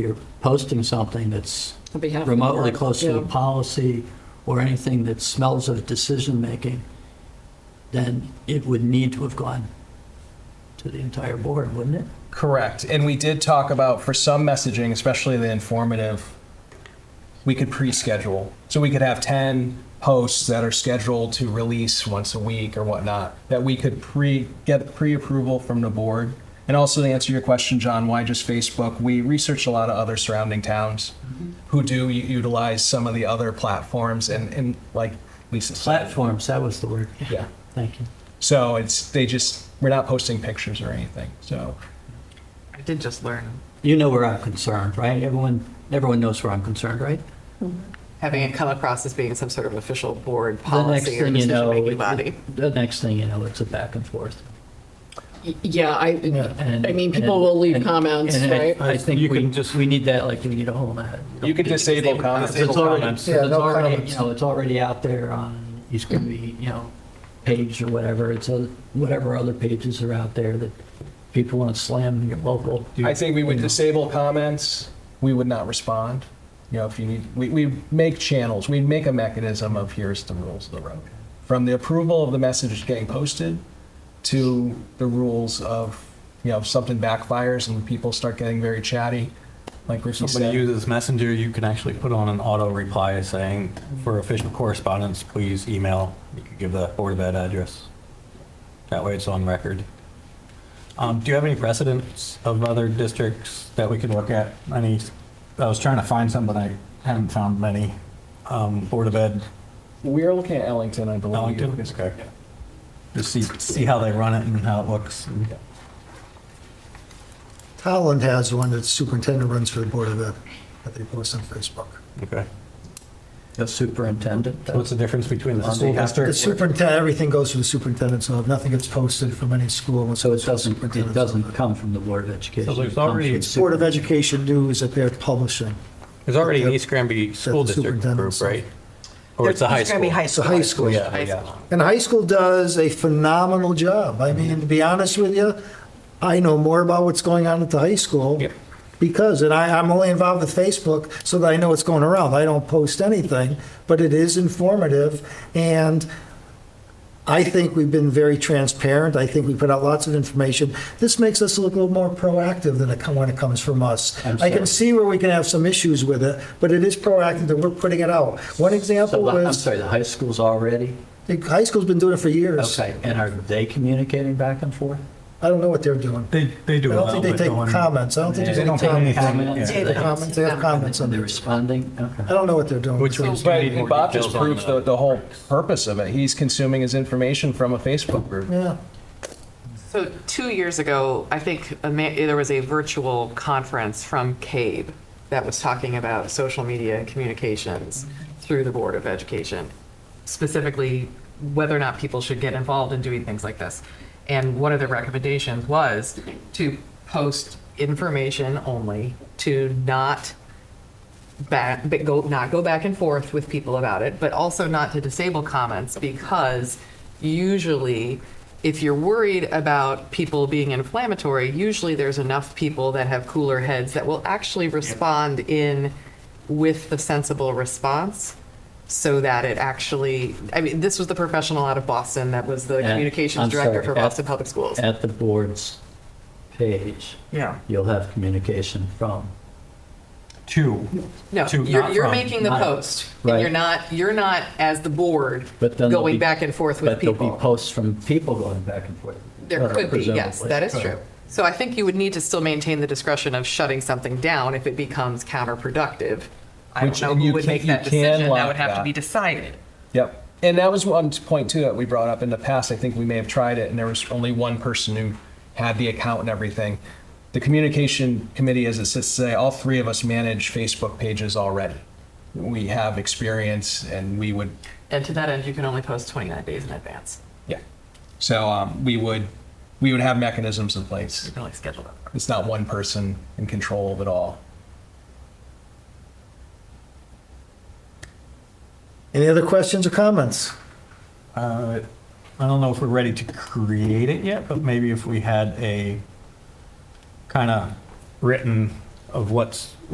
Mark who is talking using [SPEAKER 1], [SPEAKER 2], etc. [SPEAKER 1] you're posting something that's
[SPEAKER 2] On behalf of the
[SPEAKER 1] remotely
[SPEAKER 2] board,
[SPEAKER 1] close to a
[SPEAKER 2] yeah.
[SPEAKER 1] policy or anything that smells of decision-making, then it would need to have gone to the entire board, wouldn't it?
[SPEAKER 3] Correct. And we did talk about for some messaging, especially the informative, we could pre-schedule. So we could have 10 posts that are scheduled to release once a week or whatnot, that we could pre, get pre-approval from the board. And also to answer your question, John, why just Facebook? We researched a lot of other surrounding towns who do u- utilize some of the other platforms and, and like Lisa said.
[SPEAKER 1] Platforms, that was the word.
[SPEAKER 3] Yeah.
[SPEAKER 1] Thank you.
[SPEAKER 3] So it's, they just, we're not posting pictures or anything, so.
[SPEAKER 4] I did just learn
[SPEAKER 1] You know where I'm concerned, right? Everyone, everyone knows where I'm concerned, right?
[SPEAKER 4] having it come across as being some sort of official board
[SPEAKER 1] The next
[SPEAKER 4] policy or
[SPEAKER 1] thing you know,
[SPEAKER 4] decision-making
[SPEAKER 1] it-
[SPEAKER 4] body.
[SPEAKER 1] the next thing you know, it's a back and forth.
[SPEAKER 2] Y- Yeah, I,
[SPEAKER 1] And-
[SPEAKER 2] I mean, people
[SPEAKER 1] and-
[SPEAKER 2] will leave
[SPEAKER 1] and-
[SPEAKER 2] comments,
[SPEAKER 1] and I-
[SPEAKER 2] right?
[SPEAKER 1] I
[SPEAKER 5] You
[SPEAKER 1] think we,
[SPEAKER 5] can just-
[SPEAKER 1] we need that, like, we need a whole lot.
[SPEAKER 3] You could disable
[SPEAKER 4] disable
[SPEAKER 3] comments.
[SPEAKER 4] comments.
[SPEAKER 1] It's already,
[SPEAKER 5] comments.
[SPEAKER 1] so
[SPEAKER 6] Yeah,
[SPEAKER 1] it's
[SPEAKER 6] no
[SPEAKER 1] already,
[SPEAKER 6] comments.
[SPEAKER 1] you know, it's already out there on, it's going to be, you know, page or whatever, it's other- whatever other pages are out there that people want to slam your local.
[SPEAKER 3] I think we would disable comments. We would not respond. You know, if you need, we, we make channels, we make a mechanism of here's the rules of the road. From the approval of the message getting posted to the rules of, you know, if something backfires and people start getting very chatty, like Ricky
[SPEAKER 5] Somebody
[SPEAKER 3] said.
[SPEAKER 5] uses Messenger, you can actually put on an auto reply saying, for official correspondence, please email. You could give the Board of Ed address. That way it's on record. Um, do you have any precedents of other districts that we could look at? Any, I was trying to find some, but I haven't found many. Um, Board of Ed,
[SPEAKER 3] We're looking at Ellington, I believe.
[SPEAKER 5] Ellington, okay. Just see, see how they run it and how it looks.
[SPEAKER 6] Holland has one that superintendent runs for the Board of Ed, that they post on Facebook.
[SPEAKER 5] Okay.
[SPEAKER 1] The superintendent.
[SPEAKER 5] What's the difference between the school
[SPEAKER 6] The
[SPEAKER 5] district?
[SPEAKER 6] superintendent, everything goes through the superintendent, so nothing gets posted from any school.
[SPEAKER 1] So it doesn't, it doesn't come from the Board of Education.
[SPEAKER 5] So there's
[SPEAKER 1] it comes
[SPEAKER 5] already-
[SPEAKER 1] from
[SPEAKER 5] It's
[SPEAKER 6] Board of Education news that they're publishing.
[SPEAKER 5] There's already an East Granby School District
[SPEAKER 6] superintendent's-
[SPEAKER 5] group, right? Or it's a high
[SPEAKER 4] It's gonna be
[SPEAKER 5] school?
[SPEAKER 4] high
[SPEAKER 6] It's a
[SPEAKER 4] school.
[SPEAKER 6] high school.
[SPEAKER 5] Yeah,
[SPEAKER 4] High
[SPEAKER 5] yeah.
[SPEAKER 4] school.
[SPEAKER 6] And high school does a phenomenal job. I mean, to be honest with you, I know more about what's going on at the high school.
[SPEAKER 5] Yep.
[SPEAKER 6] Because, and I, I'm only involved with Facebook so that I know what's going around. I don't post anything, but it is informative. And I think we've been very transparent. I think we put out lots of information. This makes us look a little more proactive than it come- when it comes from us.
[SPEAKER 1] I'm
[SPEAKER 6] I can
[SPEAKER 1] sorry.
[SPEAKER 6] see where we can have some issues with it, but it is proactive that we're putting it out. One example
[SPEAKER 1] So, I'm
[SPEAKER 6] was,
[SPEAKER 1] sorry, the high school's already?
[SPEAKER 6] the high school's been doing it for years.
[SPEAKER 1] Okay, and are they communicating back and forth?
[SPEAKER 6] I don't know what they're doing.
[SPEAKER 5] They, they
[SPEAKER 6] I
[SPEAKER 5] do.
[SPEAKER 6] don't think they take comments. I don't think they take comments.
[SPEAKER 1] Comments?
[SPEAKER 6] They have comments, they have comments on
[SPEAKER 1] And they're
[SPEAKER 6] there.
[SPEAKER 1] responding? Okay.
[SPEAKER 6] I don't know what they're doing.
[SPEAKER 5] Which
[SPEAKER 6] So-
[SPEAKER 5] ones?
[SPEAKER 3] But Bob just proves the, the whole purpose of it. He's consuming his information from a Facebook group.
[SPEAKER 6] Yeah.
[SPEAKER 4] So two years ago, I think a ma- there was a virtual conference from CABE that was talking about social media and communications through the Board of Education, specifically whether or not people should get involved in doing things like this. And one of the recommendations was to post information only, to not back, but go, not go back and forth with people about it, but also not to disable comments because usually if you're worried about people being inflammatory, usually there's enough people that have cooler heads that will actually respond in with the sensible response so that it actually, I mean, this was the professional out of Boston that was the
[SPEAKER 1] And-
[SPEAKER 4] communications
[SPEAKER 1] I'm
[SPEAKER 4] director
[SPEAKER 1] sorry,
[SPEAKER 4] for
[SPEAKER 1] at-
[SPEAKER 4] Boston Public Schools.
[SPEAKER 1] At the board's page,
[SPEAKER 4] Yeah.
[SPEAKER 1] you'll have communication from.
[SPEAKER 5] Two.
[SPEAKER 4] No,
[SPEAKER 5] To-
[SPEAKER 4] you're,
[SPEAKER 5] not
[SPEAKER 4] you're
[SPEAKER 5] from,
[SPEAKER 4] making the
[SPEAKER 1] not-
[SPEAKER 4] post. And you're
[SPEAKER 1] right.
[SPEAKER 4] not, you're not as the board
[SPEAKER 1] But then there'll
[SPEAKER 4] going
[SPEAKER 1] be-
[SPEAKER 4] back and forth with people.
[SPEAKER 1] But there'll be posts from people going back and forth.
[SPEAKER 4] There could be, yes,
[SPEAKER 1] presumably.
[SPEAKER 4] that is true. So I think you would need to still maintain the discretion of shutting something down if it becomes counterproductive. I
[SPEAKER 3] Which-
[SPEAKER 4] don't know
[SPEAKER 3] and you
[SPEAKER 4] who would
[SPEAKER 3] can-
[SPEAKER 4] make
[SPEAKER 3] you
[SPEAKER 4] that
[SPEAKER 3] can
[SPEAKER 4] decision. That
[SPEAKER 3] lock
[SPEAKER 4] would have to
[SPEAKER 3] that.
[SPEAKER 4] be decided.
[SPEAKER 3] Yep. And that was one point too that we brought up in the past. I think we may have tried it, and there was only one person who had the account and everything. The communication committee, as it sits today, all three of us manage Facebook pages already. We have experience, and we would,
[SPEAKER 4] And to that end, you can only post 29 days in advance.
[SPEAKER 3] yeah. So um, we would, we would have mechanisms in place.
[SPEAKER 4] You can only schedule that.
[SPEAKER 3] It's not one person in control of it all.
[SPEAKER 6] Any other questions or comments?
[SPEAKER 5] Uh, I don't know if we're ready to create it yet, but maybe if we had a kind of written of what's